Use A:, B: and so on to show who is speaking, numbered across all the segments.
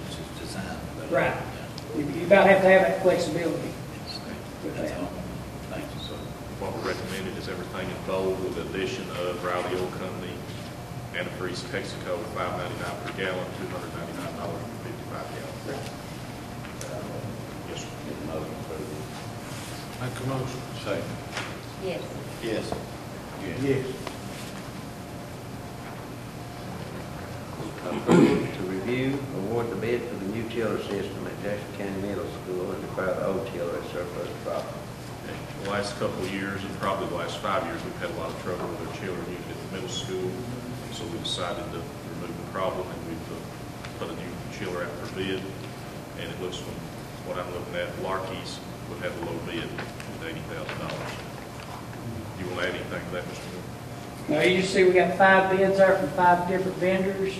A: uh,
B: Right. You you about have to have that flexibility with
A: That's
B: that.
A: all. Thank you.
C: So what we recommended is everything in bold with the addition of Riley Oil Company, antifreeze Texaco, five ninety-nine per gallon, two hundred ninety-nine dollars and fifty-five gallon.
B: Right.
C: Yes, sir.
A: Uh, Get motion approved.
D: Make a motion.
A: Second.
E: Yes.
A: Yes. Yes.
D: Yes.
F: Approval to review, award the bid for the new chiller system at Jackson County Middle School and declare the old chiller as surplus property.
C: The last couple of years, and probably the last five years, we've had a lot of trouble with our children unit at the middle school, so we decided to remove the problem, and we've uh, put a new chiller out for bid, and it looks, from what I'm looking at, Larky's would have a low bid with eighty thousand dollars. You will add anything to that, Mr. Moore?
B: Now, you just see we got five bids there from five different vendors.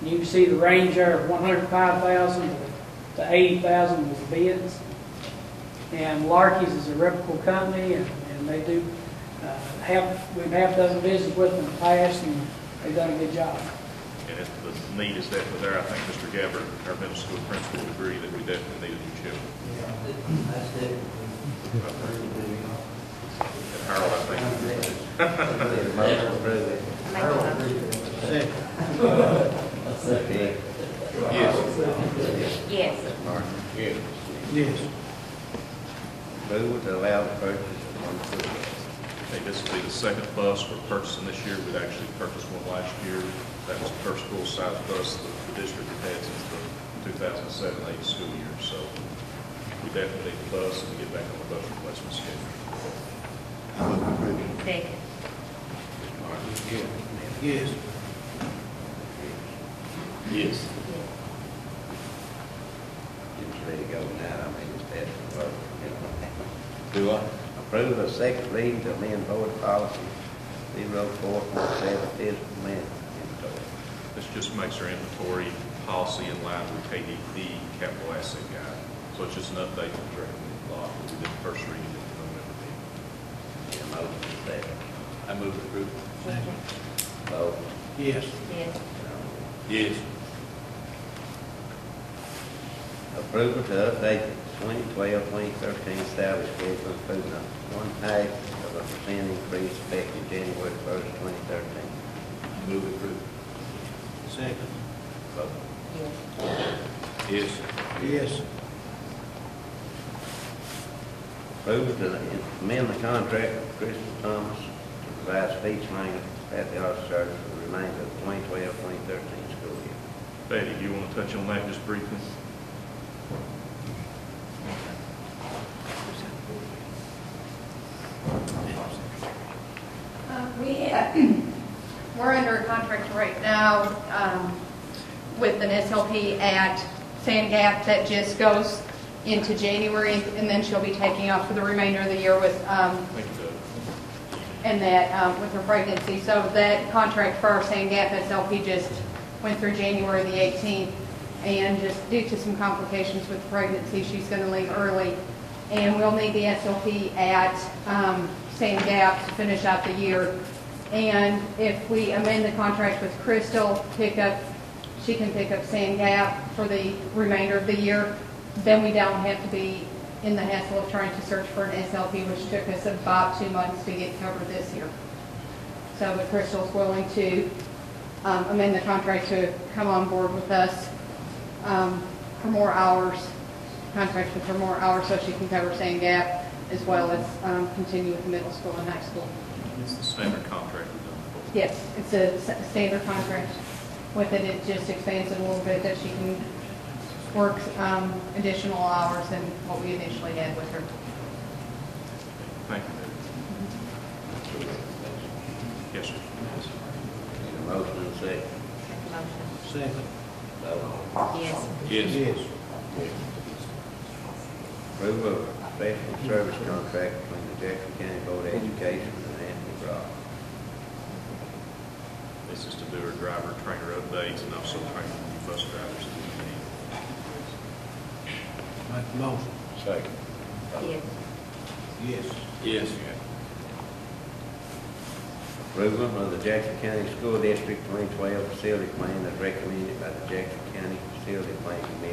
B: And you can see the range there of one hundred five thousand to eighty thousand was the bids. And Larky's is a reputable company and, and they do, uh, have, we've half done business with them in the past and they've done a good job.
C: And if the need is definitely there, I think Mr. Gabbard, our middle school principal, would agree that we definitely need a new chiller.
F: That's it.
C: And Harold, I think,
F: Motion approved.
E: I make a motion.
F: Dick,
A: Yes.
E: Yes.
F: Martin.
A: Yes.
D: Yes.
F: Approval to allow the purchase of one foot.
C: Hey, this will be the second bus we're purchasing this year. We'd actually purchased one last year. That was the first full-size bus that the district had had since the 2007-8 school year. So we definitely need the bus and get back on the bus replacement schedule.
E: Second.
D: Yes.
A: Yes.
F: Just ready to go now, I mean, it's bad for vote. you
A: Do I?
F: know. Approve of second reading to amend board policy zero four four seven physical man.
C: This just makes our inventory policy in line with KDP capital asset guide. So it's just an update to the recommended law. We did the first reading in November meeting.
F: Yeah, motion second.
A: I move approved.
E: Second.
F: Vote.
D: Yes.
E: Yes.
A: Yes.
F: Approval to update the 2012-2013 salary schedule, including a one-half of a percent increase effective January 1st, 2013.
A: I move approved.
D: Second.
F: Vote.
E: Yes.
A: Yes.
D: Yes.
F: Approval to amend the contract with Crystal Thomas to provide speech language at the office service for the remainder of the 2012-2013 school year.
C: Betty, do you want to touch on that just briefly?
G: Uh, We, we're under a contract right now um, with an SLP at Sand Gap that just goes into January, and then she'll be taking off for the remainder of the year with, um,
C: Thank you, Doug.
G: and that, um, with her pregnancy. So that contract for our Sand Gap SLP just went through January the 18th, and just due to some complications with pregnancy, she's going to leave early. And we'll need the SLP at um, Sand Gap to finish out the year. And if we amend the contract with Crystal, pick up, she can pick up Sand Gap for the remainder of the year, then we don't have to be in the hassle of trying to search for an SLP, which took us about two months to get covered this year. So, but Crystal's willing to um, amend the contract to come on board with us um, for more hours, contract with her more hours so she can cover Sand Gap as well as um, continue with the middle school and high school.
C: It's the standard contract we've done before.
G: Yes, it's a s- standard contract with it, it just expands it a little bit that she can work um, additional hours than what we initially had with her.
C: Thank you, David. Yes, sir.
F: Need a motion and a second.
E: Motion.
D: Second.
F: Vote.
E: Yes.
A: Yes.
F: Approval of a professional service contract between the Jackson County Board of Education and Anthony Brock.
C: This is to do our driver trainer updates and also train new bus drivers. through
D: Make a motion.
A: Second.
E: Yes.
D: Yes.
A: Yes.
F: Approval of the Jackson County School District 2012 Facility Plan as recommended by the Jackson County Facility Plan Committee.